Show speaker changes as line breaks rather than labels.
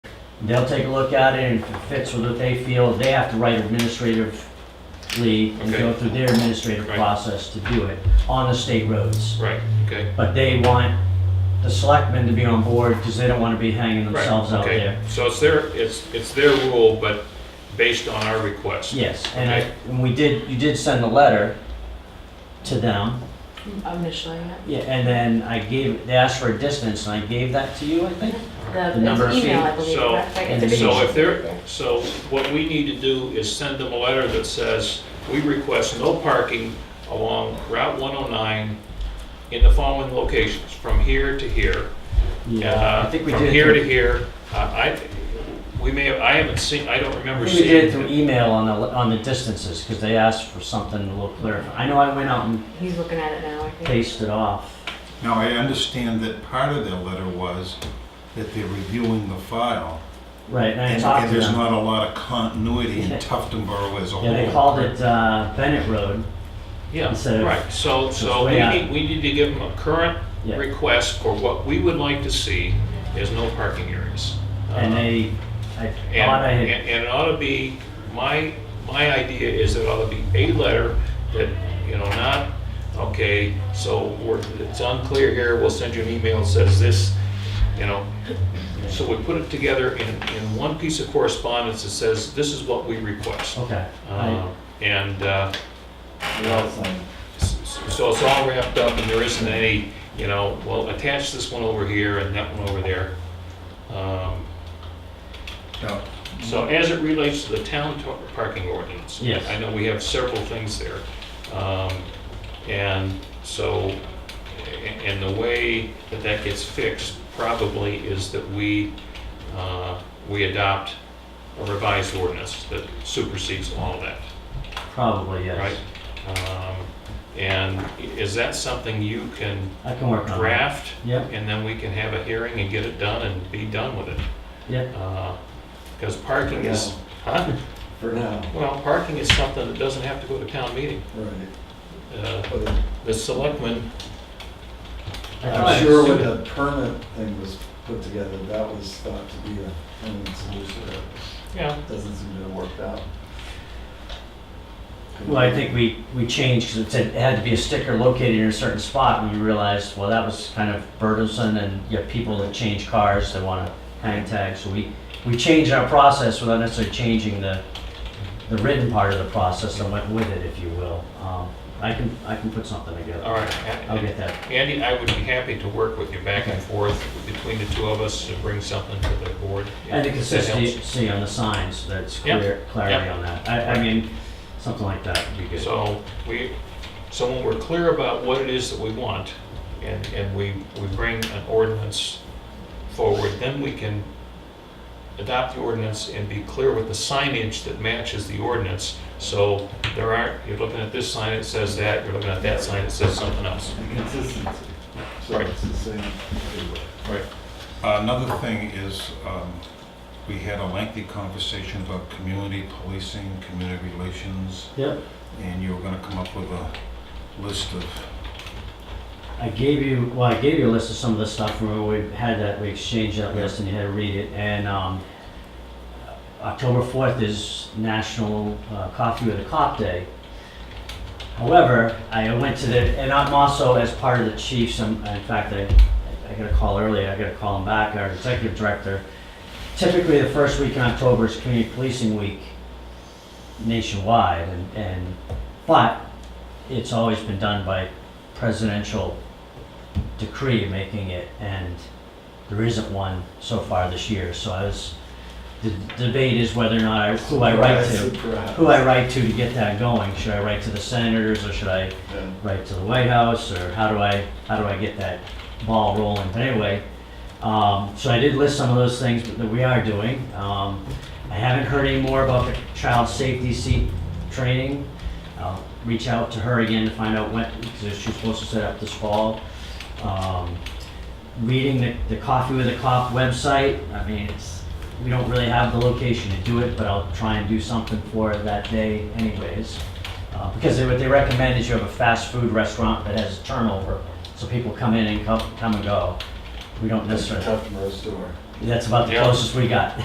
They'll take a look at it, and if it fits with what they feel, they have to write administratively and go
Okay.
through their administrative
Right.
process to do it on the state roads.
Right, okay.
But they want the selectmen to be on board, because they don't want to be hanging
Right,
themselves out
okay.
there.
So it's their, it's, it's their rule, but based on our request.
Yes, and I,
Okay.
and we did, you did send a letter to them,
initially, yeah.
yeah, and then I gave, they asked for a distance, and I gave that to you, I think?
The,
number of
it's email,
feet.
I believe,
So-
correct? Right,
and
it's a big
So
email.
if they're, so what we need to do is send them a letter that says, we request no parking along Route 109 in the following locations, from here to here.
Yeah,
Uh,
I think we
From
did
here to
it through,
here. Uh, I, we may, have- I haven't seen, I don't
I
remember
think we did it
seeing.
through email on the, on the distances, because they asked for something a little clearer. I know I went out and
He's looking at it now, I think.
paced it off.
Now, I understand that part of their letter was that they're reviewing the file,
Right, and I
and
talked
and
to
there's
them.
not a lot of continuity in
Yeah.
Tufton Borough as a whole.
Yeah, they called it uh, Bennett Road,
Yeah,
instead of-
right. So, so
way
we
out.
need, we need to give them a current
Yeah.
request for what we would like to see is no parking areas.
and
Uh,
they, I
And,
thought I had,
and, and it ought to be, my, my idea is it ought to be a letter that, you know, not, okay, so we're, it's unclear here, we'll send you an email that says this, you know. So we put it together in, in one piece of correspondence that says, this is what we request.
okay.
Uh,
I-
And, uh, s- s- so it's all wrapped up and there isn't any, you know, well, attach this one over here and that one over there. Um,
Now,
so as it relates to the town to- parking ordinance?
Yes.
I know we have several things there. Um, And so, a- and the way that that gets fixed probably is that we, uh, we adopt a revised ordinance that supersedes all that,
Probably, yes.
right? Um, And i- is that something you can
I can work on it.
draft?
Uh-huh. Yep.
And then we can have a hearing and get it done and be done with it?
Yep.
Because parking is, huh?
For now.
Well, parking is something that doesn't have to go to town meeting.
Right.
Uh,
But
The selectmen,
I thought I
I'm sure
said-
when the permit thing was put together, that was thought to be a permanent solution.
yeah,
It Doesn't seem to have worked out.
Well, I think we, we changed, because it said it had to be a sticker located in a certain spot, and we realized, well, that was kind of burdensome, and you have people that change cars, they want to hang tag, so we, we changed our process without necessarily changing the, the written part of the process and went with it, if you will. Um, I can, I can put something
all
together.
right.
I'll get that.
Andy, I would be happy to work with you back and forth between the two of us to bring something to the board.
And the
If that helps.
consistency on the signs, that's
Yeah,
clear, clarity
yeah.
on that. I, I mean, something like that would be good.
So oh, we, so when we're clear about what it is that we want, and, and we, we bring an ordinance forward, then we can adopt the ordinance and be clear with the signage that matches the ordinance. So there aren't, you're looking at this sign, it says that, you're looking at that sign, it says something else.
And Consistency. So
Right.
it's the same everywhere.
Right.
Another thing is, um, we had a lengthy conversation about community policing, community relations,
Yep.
and you were gonna come up with a list of,
I gave you, well, I gave you a list of some of the stuff, remember we had that, we exchanged that list and you had to read it, and, um, October fourth is National uh, Coffee with a Cop Day. However, I went to the, and I'm also as part of the chiefs, and in fact, I, I got a call earlier, I got to call him back, our executive director. Typically, the first week in October is Community Policing Week nationwide, and, and, but it's always been done by presidential decree making it, and there isn't one so far this year, so I was, the debate is whether or not I, who I write to,
Surprise.
who I write to to get that going, should I write to the senators, or should I
Yeah.
right to the White House, or how do I, how do I get that ball rolling? But anyway, um, so I did list some of those things that we are doing. Um, I haven't heard any more about the child safety seat training. I'll reach out to her again to find out when, because she's supposed to set up this fall. Um, reading the, the Coffee with a Cop website, I mean, it's, we don't really have the location to do it, but I'll try and do something for it that day anyways. Uh, Because they- what they recommend is you have a fast food restaurant that has turnover, so people come in and come, come and go. We don't
That's a
necessarily,
tough to restore.
that's about the
Yeah.
closest we got.